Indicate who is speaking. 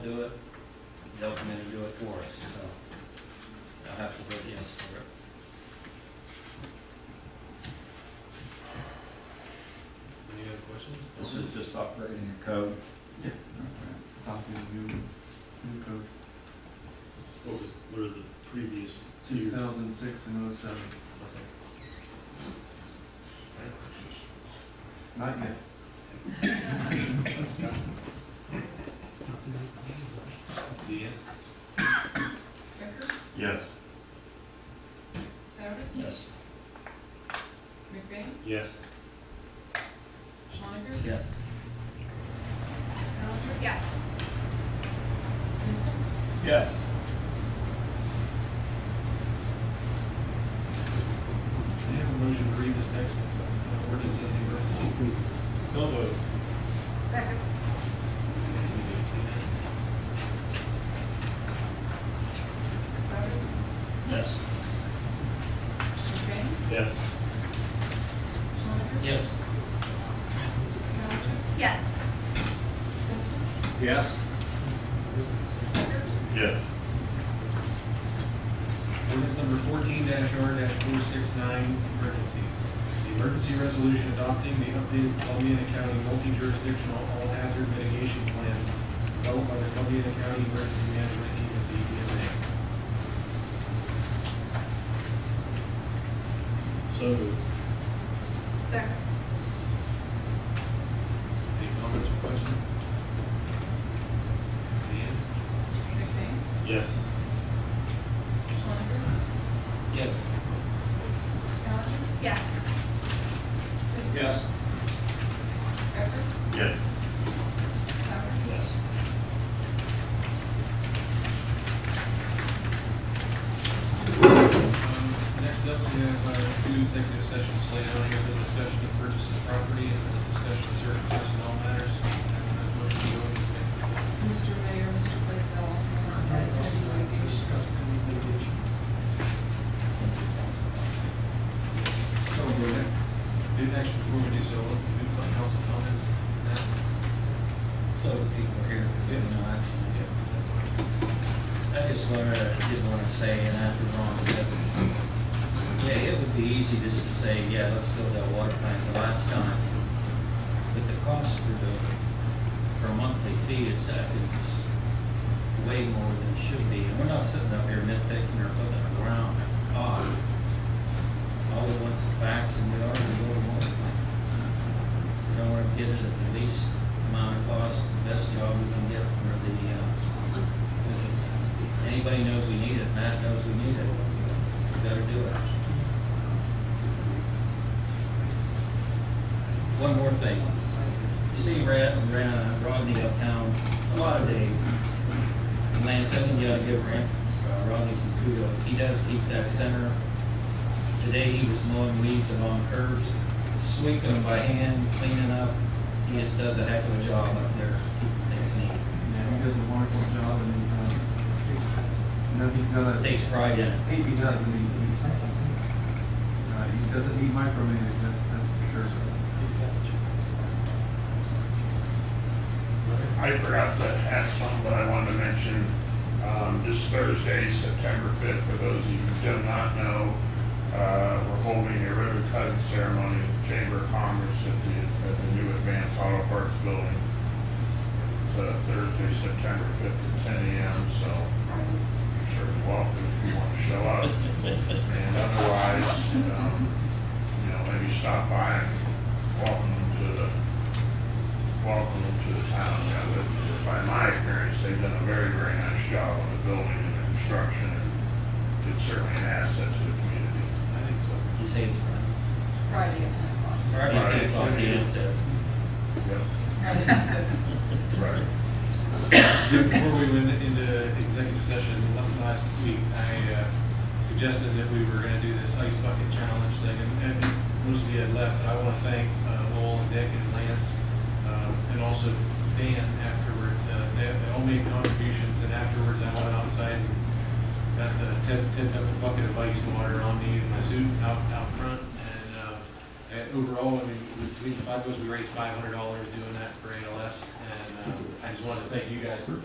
Speaker 1: they'll come in and do it for us, so I'll have to vote yes for it.
Speaker 2: Any other questions?
Speaker 3: This is just upgrading a code.
Speaker 1: Yeah.
Speaker 3: Okay. Copy of new, new code,
Speaker 2: What was, what are the previous two
Speaker 3: two
Speaker 2: years?
Speaker 3: thousand six and oh seven. Not yet.
Speaker 2: Deanne?
Speaker 4: Becker,
Speaker 3: Yes.
Speaker 4: Souter,
Speaker 1: Yes.
Speaker 4: McBain,
Speaker 2: Yes.
Speaker 4: Schoniger,
Speaker 1: Yes.
Speaker 4: Bellinger. Yes. Simpson.
Speaker 3: Yes.
Speaker 2: Can I have a motion to read this next uh, ordinance in the emergency? So moved.
Speaker 4: Second. Souter,
Speaker 1: Yes.
Speaker 4: McBain,
Speaker 2: Yes.
Speaker 4: Schoniger.
Speaker 1: Yes.
Speaker 4: Bellinger. Yes. Simpson.
Speaker 3: Yes.
Speaker 4: Becker,
Speaker 3: Yes.
Speaker 2: Ordinance number fourteen R four six nine, emergency. The emergency resolution adopting the updated Columbia County multi-jurisdictional all hazard mitigation plan developed by the Columbia County Emergency Management Agency, E EMA. So
Speaker 4: Second.
Speaker 2: Any comments or questions? Ian?
Speaker 4: McBain,
Speaker 2: Yes.
Speaker 4: Schoniger,
Speaker 1: Yes.
Speaker 4: Bellinger. Yes. Simpson. Becker,
Speaker 3: Yes.
Speaker 4: Souter.
Speaker 1: Yes.
Speaker 2: Um, Next up, we have uh, two executive sessions later on here, the discussion of purchase of property and the discussion of certain personnel matters. Motion to go into executive
Speaker 4: Mr. Mayor, Mr. Blaisdell also not that pending litigation.
Speaker 2: session. So, we're next, do next before we do so, let's do some council comments. Now,
Speaker 1: So the people here, we have no action. to take. I just wanted, I did want to say, and after Ron said, yeah, it would be easy just to say, yeah, let's build that water plant the last time. But the cost for the, for a monthly fee is, I think, is way more than it should be. And we're not sitting up here nitpicking or putting it around off. All we want's the facts and we are going to build a water plant. So Don't worry, get us at the least amount of cost, the best job we can get for the, uh, is it- anybody knows we need it, Matt knows we need it. We gotta do it. One more thing. You See Rad, Rad, Rodney uptown a lot of days. And Lance, I think you ought to give Rand, uh, Rodney some kudos. He does keep that center Today he was mowing weeds along curves, sweeping them by hand, cleaning up. He just does a heck of a job up there. Things neat.
Speaker 3: Yeah, he does a wonderful job and he's, um, you know, he's got a,
Speaker 1: Takes pride in it.
Speaker 3: he he does, and he, he's, uh, he doesn't, he micromanage, that's, that's for sure.
Speaker 5: I forgot to ask something, but I wanted to mention, um, this Thursday, September fifth, for those of you who do not know, uh, we're holding a ribbon cutting ceremony at the Chamber of Commerce at the, at the new Advanced Auto Parts Building. It's, uh, Thursday, September fifth at ten AM, so um, you're sure welcome if you want to show up. And otherwise, um, you know, maybe stop by and welcome to the welcome to the town. Now, but by my experience, they've done a very, very nice job on the building and the construction, and it's certainly an asset to the community.
Speaker 2: I think so.
Speaker 1: He saves pride.
Speaker 4: Friday at ten o'clock.
Speaker 1: Friday, ten o'clock, he then says.
Speaker 5: Yep.
Speaker 4: Friday at ten.
Speaker 5: Right.
Speaker 2: Yeah, Before we went into executive session la- last week, I uh, suggested that we were gonna do this ice bucket challenge thing, and, and most of you had left, but I wanna thank uh, Lowell and Dick and Lance, um, and also Dan afterwards, Uh, they, they all made contributions, and afterwards I went outside and got the, tipped, tipped up a bucket of ice water on me and my suit out, out front, and, uh, and overall, I mean, between the five of us, we raised five hundred dollars doing that for ALS, and, uh, I just wanted to thank you guys for